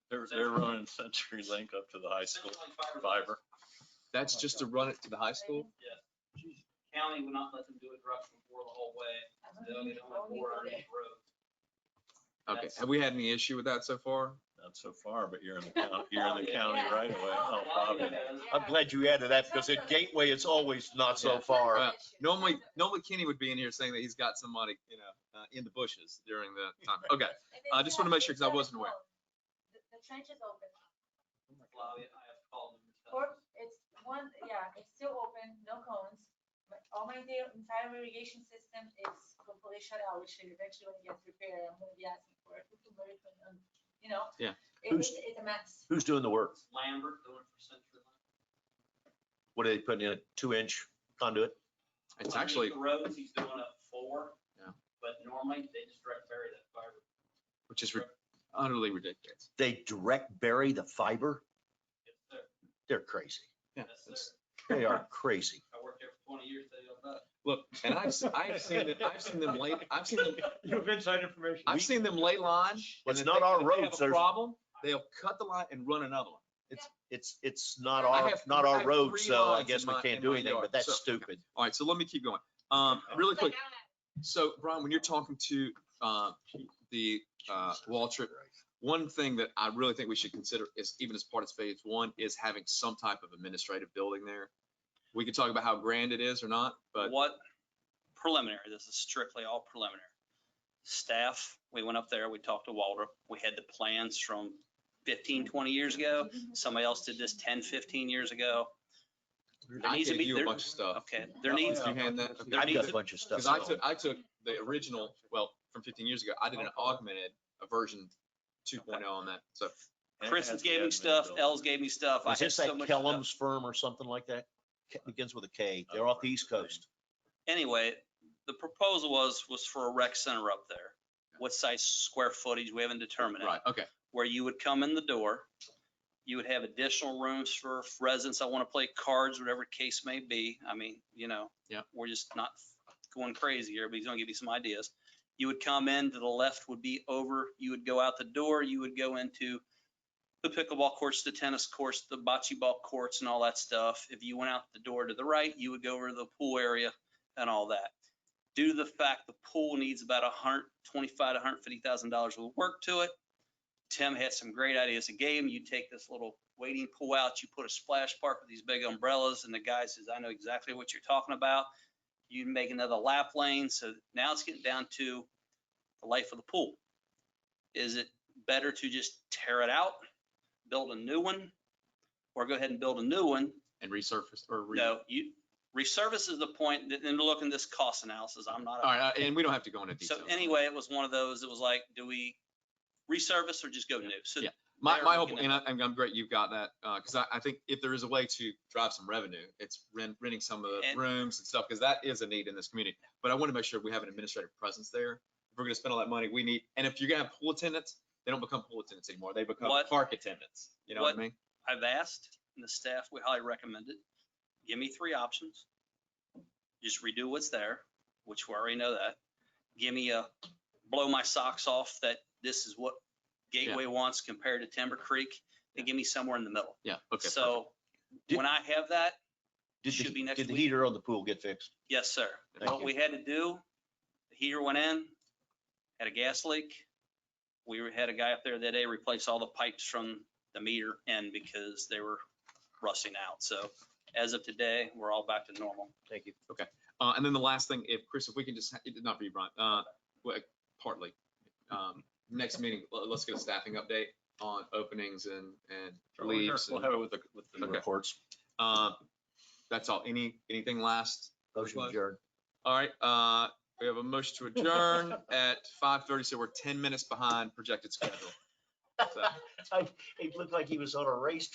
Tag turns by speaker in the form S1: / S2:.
S1: They're, they're running Century Link up to the high school fiber.
S2: That's just to run it to the high school?
S3: County would not let them do it direct from Ford the whole way. They'll get on Ford on the road.
S2: Okay,
S3: That's-
S2: have we had any issue with that so far?
S1: Not so far, but you're in the county, you're in the county
S4: Yeah.
S1: right away. Oh, probably.
S4: I'm
S5: I'm
S4: glad
S5: glad you added that because at Gateway, it's always not so far.
S2: Uh, Normally, normally Kenny would be in here saying that he's got somebody, you know, uh, in the bushes during the time. Okay, I just wanna make sure 'cause I wasn't aware.
S4: The the trench is open.
S3: Lobby, I have called them.
S4: Or it's one, yeah, it's still open, no cones. But all my da- entire irrigation system is completely shut out, which should eventually when it gets repaired, I'm gonna be asking for it. You know?
S2: Yeah.
S4: It- It's, it's a mess.
S5: Who's doing the work?
S3: It's Lambert going for Century Link.
S5: What are they putting in, a two-inch conduit?
S2: It's
S3: Underneath
S2: actually,
S3: The roads, he's doing a four.
S2: Yeah.
S3: But normally they just direct bury that fiber.
S2: which is ri- utterly ridiculous.
S5: They direct bury the fiber?
S3: Yes, sir.
S5: They're crazy.
S2: Yeah,
S3: Yes,
S2: it's-
S3: sir.
S5: They are crazy.
S3: I worked there for twenty years, they don't know.
S2: Look, and I've, s- I've seen, it- I've seen them late, I've seen them,
S6: You have inside information.
S2: I've seen them lay line. and
S5: It's
S2: if
S5: not
S2: they-
S5: our
S2: if they have
S5: roads,
S2: a
S5: there's-
S2: Problem, they'll cut the line and run another one.
S5: It's, it's not
S2: I
S5: our,
S2: have-
S5: not
S2: I
S5: our
S2: have
S5: road,
S2: three
S5: so I
S2: lines
S5: guess
S2: in
S5: we
S2: my-
S5: can't
S2: in
S5: do
S2: my
S5: anything,
S2: yard,
S5: but that's
S2: so-
S5: stupid.
S2: All right, so let me keep going. Um, really quick, so Brian, when you're talking to, uh, the, uh, Waltrip, one thing that I really think we should consider is even as part of phase one is having some type of administrative building there. We could talk about how grand it is or not, but
S7: What preliminary, this is strictly all preliminary. Staff, we went up there, we talked to Waldrop, we had the plans from 15, 20 years ago.
S4: Mm-hmm.
S7: Somebody else did this 10, 15 years ago. There
S2: I
S7: needs to
S2: gave
S7: be-
S2: you a
S7: there-
S2: bunch of stuff.
S7: Okay, there
S2: Oh,
S7: needs,
S2: You had that?
S7: There
S5: I've got
S7: needs
S5: a
S7: to-
S5: bunch of stuff.
S2: Because I took, I took the original, well, from fifteen years ago, I did an augmented, a version two oh on that, so.
S7: Chris gave me stuff, Els gave me stuff. I
S5: Is
S7: had
S5: this
S7: so
S5: that
S7: much stuff.
S5: Kellum's firm or something like that? Ke- Begins with a K. They're off the East Coast.
S7: Anyway, the proposal was, was for a rec center up there. What size square footage, we haven't determined. it.
S2: Right, okay,
S7: where you would come in the door. You would have additional rooms for residents that want to play cards, whatever case may be. I mean, you know.
S2: Yep.
S7: We're just not going crazy here, but he's gonna give you some ideas. You would come in, to the left would be over, you would go out the door, you would go into the pickleball courts, the tennis courts, the bocce ball courts and all that stuff. If you went out the door to the right, you would go over to the pool area and all that. Due to the fact the pool needs about a hundred twenty-five, hundred fifty thousand dollars worth of work to it, Tim had some great ideas. A game, you take this little wading pool out, you put a splash park with these big umbrellas, and the guy says, I know exactly what you're talking about. You make another lap lane, so now it's getting down to the life of the pool. Is it better to just tear it out, build a new one, or go ahead and build a new one?
S2: and resurfaced or. re-
S7: No, you, resurface is the point, that- and look in this cost analysis, I'm not. a-
S2: All right, uh, and we don't have to go into
S7: So
S2: detail.
S7: anyway, it was one of those, it was like, do we resurface or just go new? So
S2: Yeah. My,
S7: they're
S2: my whole,
S7: looking at-
S2: and I, and I'm great you've got that, uh, cause I, I think if there is a way to drive some revenue, it's rent, renting some of the
S7: And-
S2: rooms and stuff, cause that is a need in this community. But I wanna make sure we have an administrative presence there. If we're gonna spend all that money, we need, and if you're gonna have pool attendants, they don't become pool attendants anymore, they become
S7: What-
S2: park attendants, you know what I
S7: what-
S2: mean?
S7: I've asked, and the staff, we highly recommend it. Give me three options. Just redo what's there, which we already know that. Give me a blow my socks off that this is what Gateway wants compared to Timber Creek, and give me somewhere in the middle.
S2: Yeah, okay.
S7: So
S5: Did-
S7: when I have that,
S5: Did
S7: Should be
S5: the,
S7: next
S5: did the
S7: week.
S5: heater on the pool get fixed?
S7: yes, sir.
S2: perfect.
S5: Thank
S7: What
S5: you.
S7: we had to do, the heater went in, had a gas leak. We had a guy up there that day replace all the pipes from the meter end because they were rusting out. So as of today, we're all back to normal.
S5: Thank you.
S2: Uh, and then the last thing, if Chris, if we can just, ha- it did not for you, Brian, uh, well, partly. Um, next meeting, l- let's get a staffing update on openings and, and leaves.
S1: We'll
S2: and-
S1: have it with the, with the.
S2: Okay.
S5: Reports.
S2: Uh, that's all. Any, anything last?
S5: Motion
S2: Close.
S5: adjourned.
S2: All right, uh, we have a motion to adjourn at five thirty, so we're ten minutes behind projected schedule. So-
S5: I- It looked like he was on a race